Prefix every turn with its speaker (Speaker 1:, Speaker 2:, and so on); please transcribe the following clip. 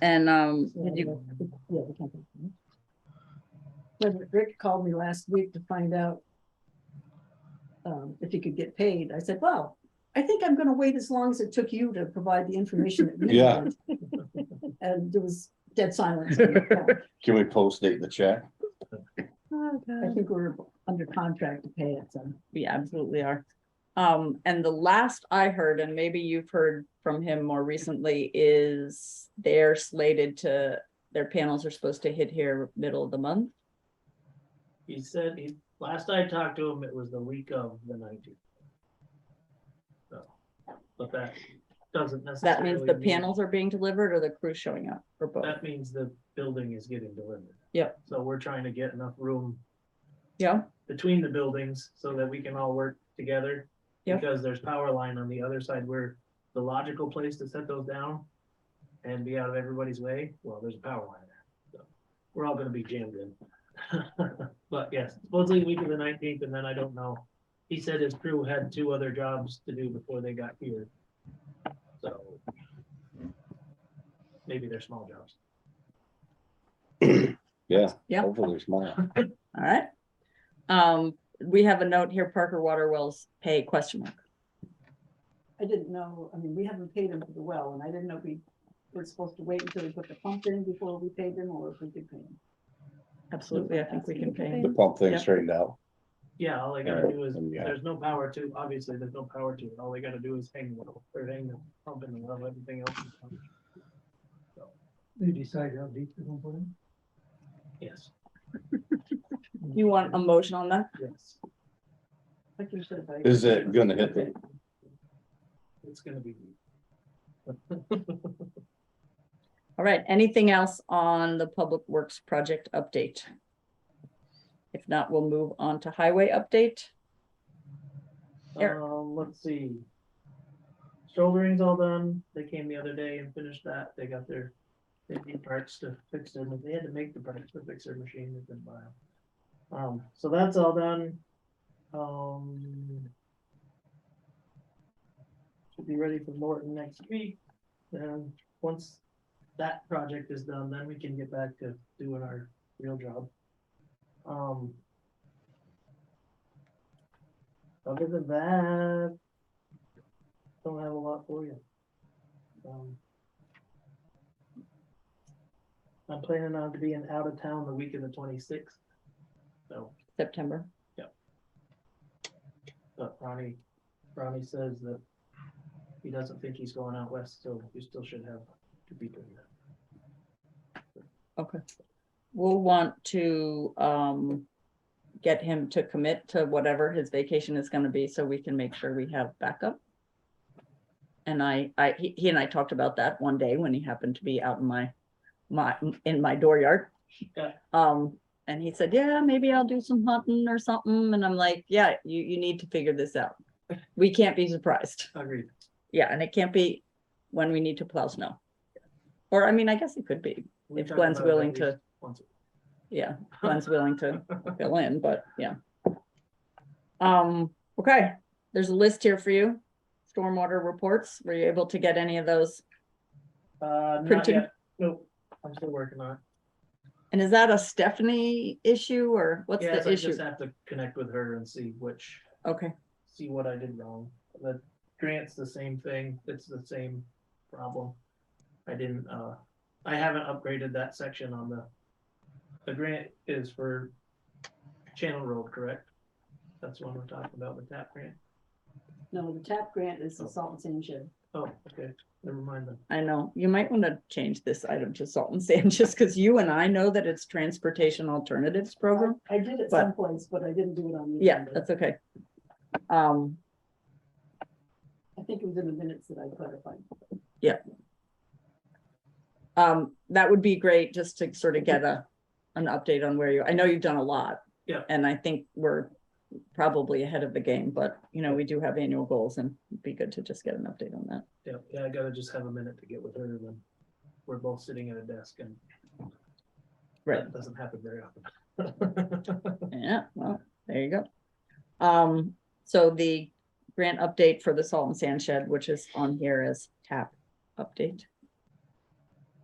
Speaker 1: And um,
Speaker 2: Yeah,
Speaker 1: did you,
Speaker 2: yeah, we can't do that. But Rick called me last week to find out um, if he could get paid. I said, well, I think I'm gonna wait as long as it took you to provide the information. that we
Speaker 3: Yeah.
Speaker 2: want." And there was dead silence. on the phone.
Speaker 3: Can we post date the check?
Speaker 2: I think we we're under contract to pay it, so.
Speaker 1: we absolutely are. Um, and the last I heard, and maybe you've heard from him more recently, is they're slated to, their panels are supposed to hit here middle of the month.
Speaker 4: He said, he, last I talked to him, it was the week of the nineteenth. So, but that doesn't
Speaker 1: That
Speaker 4: necessarily.
Speaker 1: means the
Speaker 4: mean-
Speaker 1: panels are being delivered or the crew's showing up or both.
Speaker 4: That means the building is getting delivered.
Speaker 1: Yep.
Speaker 4: So we're trying to get enough room
Speaker 1: Yeah,
Speaker 4: between the buildings so that we can all work together.
Speaker 1: Yep.
Speaker 4: Because there's power line on the other side where the logical place to set those down and be out of everybody's way, well, there's a power line there. So We're all gonna be jammed in. But yes, supposedly week of the nineteenth, and then I don't know. He said his crew had two other jobs to do before they got here. So maybe they're small jobs.
Speaker 3: Yeah.
Speaker 1: Yeah.
Speaker 3: Hopefully it's mine.
Speaker 1: all right. Um, we have a note here, Parker Water Wells pay question mark.
Speaker 2: I didn't know, I mean, we haven't paid him for the well, and I didn't know if we were supposed to wait until we put the pump in before we paid him, or if we could pay him.
Speaker 1: Absolutely, I think we can pay.
Speaker 3: The pump
Speaker 1: Yeah.
Speaker 3: thing straightened out.
Speaker 4: Yeah, all they gotta
Speaker 3: Alright,
Speaker 4: do is,
Speaker 3: then, yeah.
Speaker 4: there's no power to, obviously, there's no power to it. All they gotta do is hang the, or hang the pump in the well, everything else. is fine.
Speaker 5: They decide how deep they're gonna put in?
Speaker 4: Yes,
Speaker 1: You want a motion on that?
Speaker 4: yes,
Speaker 2: Like you said, I-
Speaker 3: Is it gonna hit the,
Speaker 4: it's gonna be.
Speaker 1: All right, anything else on the Public Works project update? If not, we'll move on to highway update. Eric.
Speaker 4: Um, let's see. Shouldering's all done. They came the other day and finished that. They got their, they need parts to fix their, they had to make the parts to fix their machine. It's been a while. Um, so that's all done. Um. Should be ready for Morton next week. Then, once that project is done, then we can get back to doing our real job. Um. Other than that, don't have a lot for you. Um, I'm planning on being out of town the week of the twenty-sixth. So,
Speaker 1: September.
Speaker 4: but Ronnie, Ronnie says that he doesn't think he's going out west, so you still should have to be doing that.
Speaker 1: Okay. We'll want to um get him to commit to whatever his vacation is gonna be, so we can make sure we have backup. And I, I, he, he and I talked about that one day when he happened to be out in my, my, in my dooryard.
Speaker 4: Yeah.
Speaker 1: Um, and he said, yeah, maybe I'll do some hunting or something, and I'm like, yeah, you, you need to figure this out. We can't be surprised.
Speaker 4: Agreed.
Speaker 1: Yeah, and it can't be when we need to plow snow. Or, I mean, I guess it could be,
Speaker 4: We
Speaker 1: if
Speaker 4: talked
Speaker 1: Glenn's
Speaker 4: about it at
Speaker 1: willing to,
Speaker 4: least once.
Speaker 1: yeah, Glenn's willing to fill in, but yeah. Um, okay, there's a list here for you. Stormwater reports, were you able to get any of those?
Speaker 4: Uh, not
Speaker 1: Printing.
Speaker 4: yet. Nope, I'm still working on it.
Speaker 1: And is that a Stephanie issue or what's
Speaker 4: Yeah,
Speaker 1: the
Speaker 4: so I
Speaker 1: issue?
Speaker 4: just have to connect with her and see which
Speaker 1: Okay,
Speaker 4: see what I did wrong. The grant's the same thing. It's the same problem. I didn't, uh, I haven't upgraded that section on the, the grant is for Channel Road, correct? That's the one we're talking about with that grant.
Speaker 2: No, the TAP grant is the salt and sand shed.
Speaker 4: Oh, okay. Never mind then.
Speaker 1: I know, you might want to change this item to salt and sand, just because you and I know that it's transportation alternatives program.
Speaker 2: I did it
Speaker 1: But-
Speaker 2: someplace, but I didn't do it on the.
Speaker 1: Yeah,
Speaker 2: agenda.
Speaker 1: that's okay. Um,
Speaker 2: I think it was in the minutes that I clarified.
Speaker 1: um, that would be great just to sort of get a, an update on where you, I know you've done a lot.
Speaker 4: Yeah.
Speaker 1: And I think we're probably ahead of the game, but you know, we do have annual goals and it'd be good to just get an update on that.
Speaker 4: Yeah, yeah, I gotta just have a minute to get with her and then we're both sitting at a desk and
Speaker 1: Right.
Speaker 4: that doesn't happen very often.
Speaker 1: Yeah, well, there you go. Um, so the grant update for the salt and sand shed, which is on here as tap update.